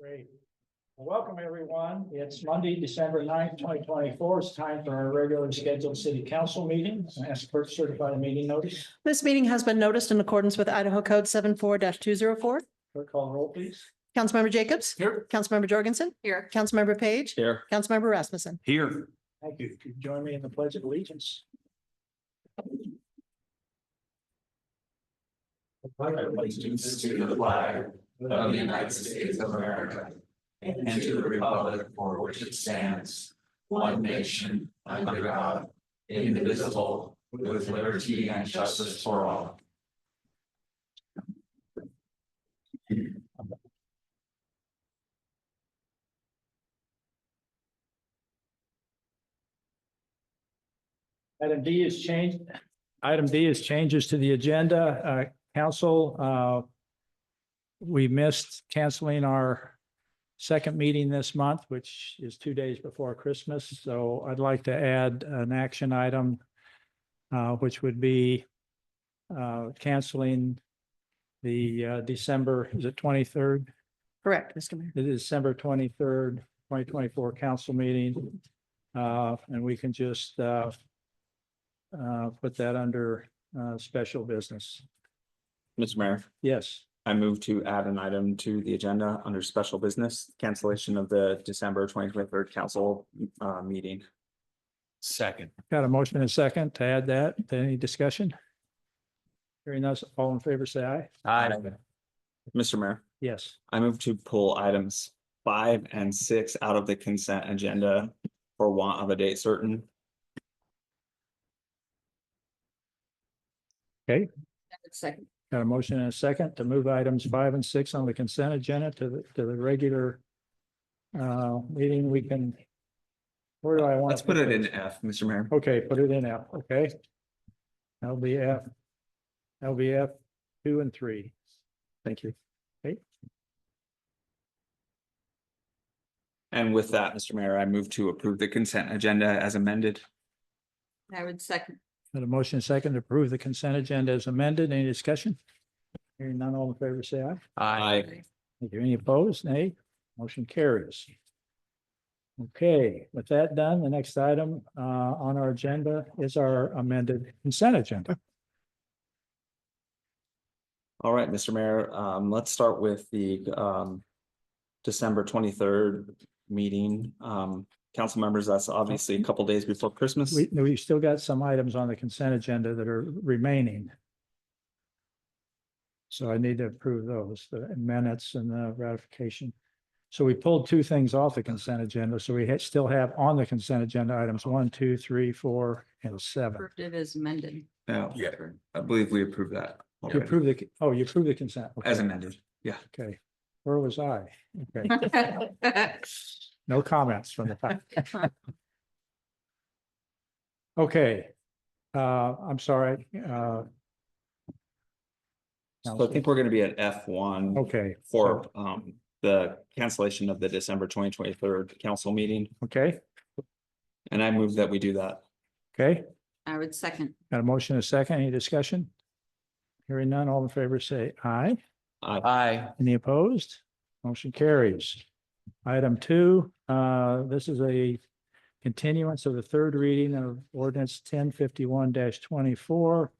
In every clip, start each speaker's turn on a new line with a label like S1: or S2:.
S1: Great. Well, Welcome, everyone. It's Monday, December 9th, twenty twenty-four. It's time for our regularly scheduled city council meeting. I Ask for certified meeting notice.
S2: This meeting has been noticed in accordance with Idaho Code 74 two zero four.
S1: Clerk call the roll, please.
S2: Councilmember Jacobs?
S1: Here.
S2: Councilmember Jorgensen? Here. Councilmember Page?
S3: Here.
S2: Councilmember Rasmussen?
S3: Here.
S1: Thank you. Could you join me in the pledge of allegiance?
S4: allegiance to the flag of the United States of America and to the republic for which it stands, one nation, under God, indivisible, with liberty and justice for all.
S1: Item D is change. Item D is changes to the agenda. Uh, council, uh, we missed canceling our second meeting this month, which is two days before Christmas. So I'd like to add an action item, uh, which would be uh, canceling the uh, December, is it twenty-third?
S2: Correct, Mr. Mayor.
S1: the December twenty-third, twenty twenty-four council meeting. Uh, and we can just, uh, uh, put that under, uh, special business.
S3: Mr. Mayor,
S1: Yes,
S3: I move to add an item to the agenda under special business cancellation of the December twenty twenty third council uh meeting.
S4: Second.
S1: got a motion and a second to add that. Any discussion? Hearing us, all in favor, say aye.
S4: Aye.
S3: Mr. Mayor,
S1: Yes,
S3: I move to pull items five and six out of the consent agenda for want of a date certain.
S5: Second.
S1: got a motion and a second to move items five and six on the consent agenda to the, to the regular, uh, meeting. We can, where do I want?
S3: Let's put it in F, Mr. Mayor.
S1: Okay, put it in F, okay? LBF, LBF two and three.
S3: Thank you.
S1: Okay.
S3: And with that, Mr. Mayor, I move to approve the consent agenda as amended.
S5: I would second.
S1: Got a motion and second to approve the consent agenda as amended. Any discussion? Hearing none, all in favor, say aye.
S3: Aye.
S1: Thank you. Any opposed? Nay. Motion carries. Okay, with that done, the next item uh on our agenda is our amended consent agenda.
S3: All right, Mr. Mayor, um, let's start with the, um, December twenty-third meeting. Um, council members, that's obviously a couple days before Christmas.
S1: We, we still got some items on the consent agenda that are remaining. So I need to approve those, the minutes and the ratification. So we pulled two things off the consent agenda, so we ha- still have on the consent agenda items one, two, three, four, and seven.
S5: Approved it as amended.
S3: Yeah, I believe we approved that.
S1: You
S3: already,
S1: approve the, oh, you approve the consent. okay,
S3: As amended.
S1: Okay, where was I? Okay, no comments from the top. Okay, uh, I'm sorry, uh.
S3: So I think we're gonna be at F one
S1: Okay,
S3: for, um, the cancellation of the December twenty twenty-third council meeting.
S1: okay,
S3: And I move that we do that.
S1: okay.
S5: I would second.
S1: Got a motion, and a second, any discussion? Hearing none, all in favor say aye.
S4: Aye.
S1: Any opposed? Motion carries. Item two, uh, this is a continuance of the third reading of ordinance ten fifty-one twenty-four.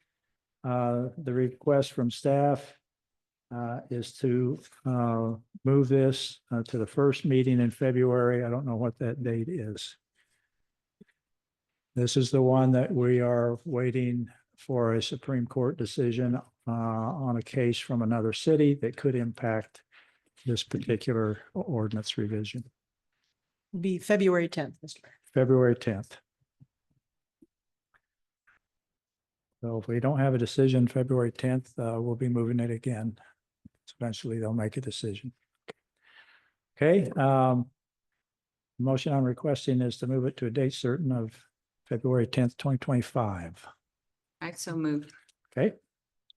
S1: Uh, the request from staff uh, is to uh, move this uh, to the first meeting in February. I don't know what that date is. This is the one that we are waiting for a Supreme Court decision uh, on a case from another city that could impact this particular ordinance revision,
S2: Be February tenth, Mr. Mayor.
S1: February tenth. So if we don't have a decision February tenth, uh, we'll be moving it again. Eventually, they'll make a decision. Okay, um, motion I'm requesting is to move it to a date certain of February tenth, twenty twenty-five.
S5: I so moved.
S1: Okay?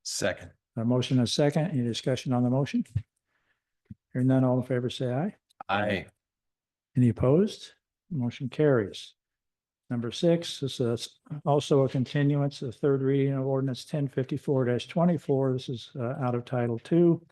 S4: Second.
S1: A motion and a second. Any discussion on the motion? Hearing none, all in favor, say aye.
S4: Aye.
S1: Any opposed? Motion carries. Number six, this is also a continuance, the third reading of ordinance ten fifty-four twenty-four. This is uh, out of title two.